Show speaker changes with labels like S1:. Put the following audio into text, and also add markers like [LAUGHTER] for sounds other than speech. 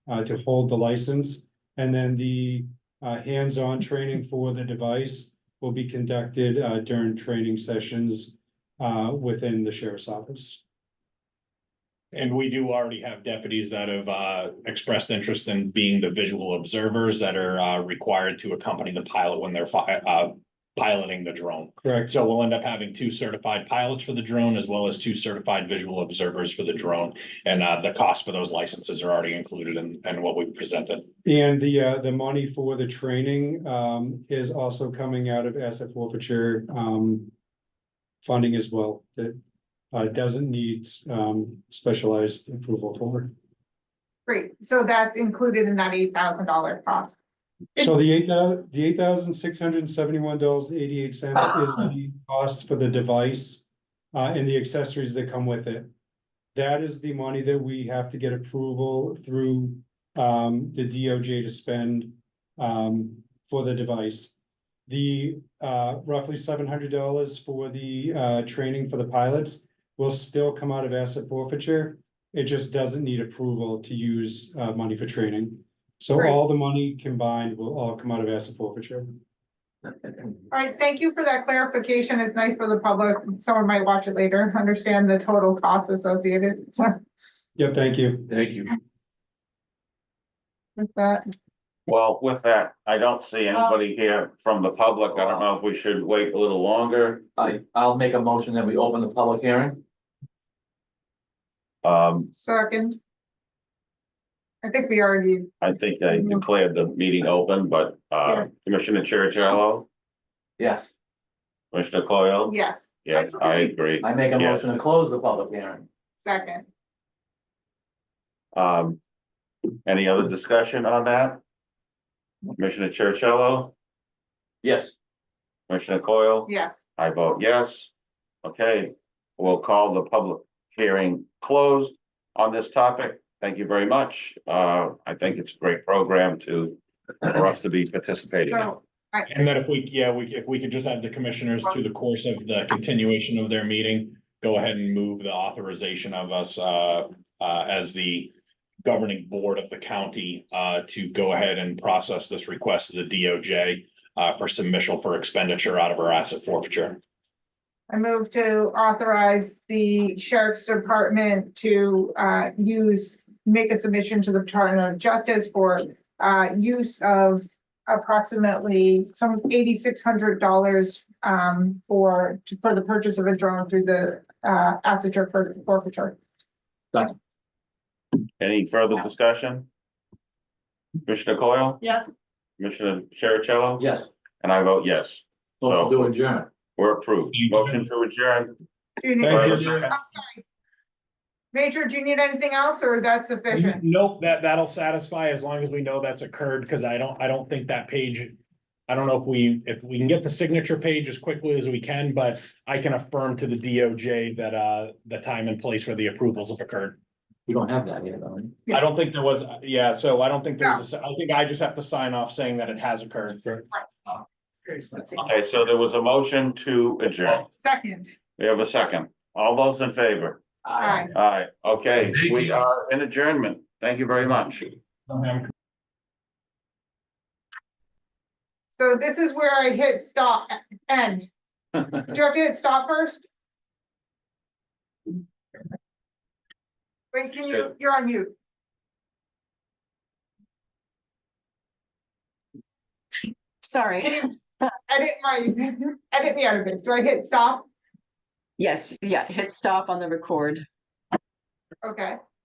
S1: uh, to hold the license. And then the, uh, hands-on training for the device will be conducted, uh, during training sessions, uh, within the sheriff's office.
S2: And we do already have deputies that have uh expressed interest in being the visual observers that are uh required to accompany the pilot when they're fi- uh piloting the drone.
S1: Correct,
S2: So we'll end up having two certified pilots for the drone as well as two certified visual observers for the drone. And uh the cost for those licenses are already included in in what we presented.
S1: and the, uh, the money for the training, um, is also coming out of asset forfeiture, um. Funding as well, that, uh, doesn't need, um, specialized approval for.
S3: Great, so that's included in that eight thousand dollar cost.
S1: So the eight thou- the eight thousand six hundred and seventy-one dollars eighty-eight cents is the cost for the device. Uh, and the accessories that come with it. That is the money that we have to get approval through, um, the DOJ to spend, um, for the device. The, uh, roughly seven hundred dollars for the, uh, training for the pilots will still come out of asset forfeiture. It just doesn't need approval to use, uh, money for training. So
S3: Right.
S1: all the money combined will all come out of asset forfeiture.
S3: All right, thank you for that clarification. It's nice for the public. Someone might watch it later, understand the total cost associated [LAUGHS] with
S1: Yep, thank you.
S4: Thank you.
S3: that.
S5: Well, with that, I don't see anybody here from the public. I don't know if we should wait a little longer.
S4: I, I'll make a motion that we open the public hearing.
S5: Um,
S3: Second. I think we already,
S5: I think I declared the meeting open, but, uh,
S3: Yeah.
S5: Commissioner Chercello,
S4: Yes,
S5: Commissioner Coyle?
S3: yes,
S5: Yes, I agree.
S4: I make a
S5: Yes.
S4: motion to close the public hearing.
S3: second.
S5: Um, any other discussion on that? Commissioner Chercello,
S4: Yes,
S5: Commissioner Coyle?
S3: Yes,
S5: I vote yes. Okay, we'll call the public hearing closed on this topic. Thank you very much. Uh, I think it's a great program to, for us to be participating in.
S3: so,
S2: And then if we, yeah, we if we could just have the commissioners through the course of the continuation of their meeting, go ahead and move the authorization of us uh uh as the governing board of the county uh to go ahead and process this request to the DOJ uh for submission for expenditure out of our asset forfeiture.
S3: I move to authorize the sheriff's department to uh use, make a submission to the Department of Justice for uh use of approximately some eighty-six hundred dollars um for, for the purchase of a drone through the uh asset for forfeiture.
S5: Any further discussion? Commissioner Coyle,
S3: Yes.
S5: Commissioner Chercello?
S4: yes,
S5: And I vote yes.
S4: motion to adjourn.
S5: We're approved. Motion to adjourn.
S3: Do you need,
S1: Thank
S3: I'm
S1: you.
S3: sorry. Major, do you need anything else or that's sufficient?
S2: Nope, that that'll satisfy as long as we know that's occurred, because I don't, I don't think that page. I don't know if we, if we can get the signature page as quickly as we can, but I can affirm to the DOJ that uh the time and place where the approvals have occurred.
S4: We don't have that yet, though. right?
S3: Yeah.
S2: I don't think there was, yeah, so I don't think there's, I think I just have to sign off saying that it has occurred.
S5: Okay, so there was a motion to adjourn.
S3: Second,
S5: We have a second. All those in favor?
S3: aye.
S5: Aye. Okay, we are in adjournment. Thank you very much.
S3: So this is where I hit stop, end. Do you have to hit stop first? Wait, can you,
S5: Sure.
S3: you're on mute.
S6: Sorry.
S3: Edit my, edit me out of this. Do I hit stop?
S6: Yes, yeah, hit stop on the record.
S3: Okay,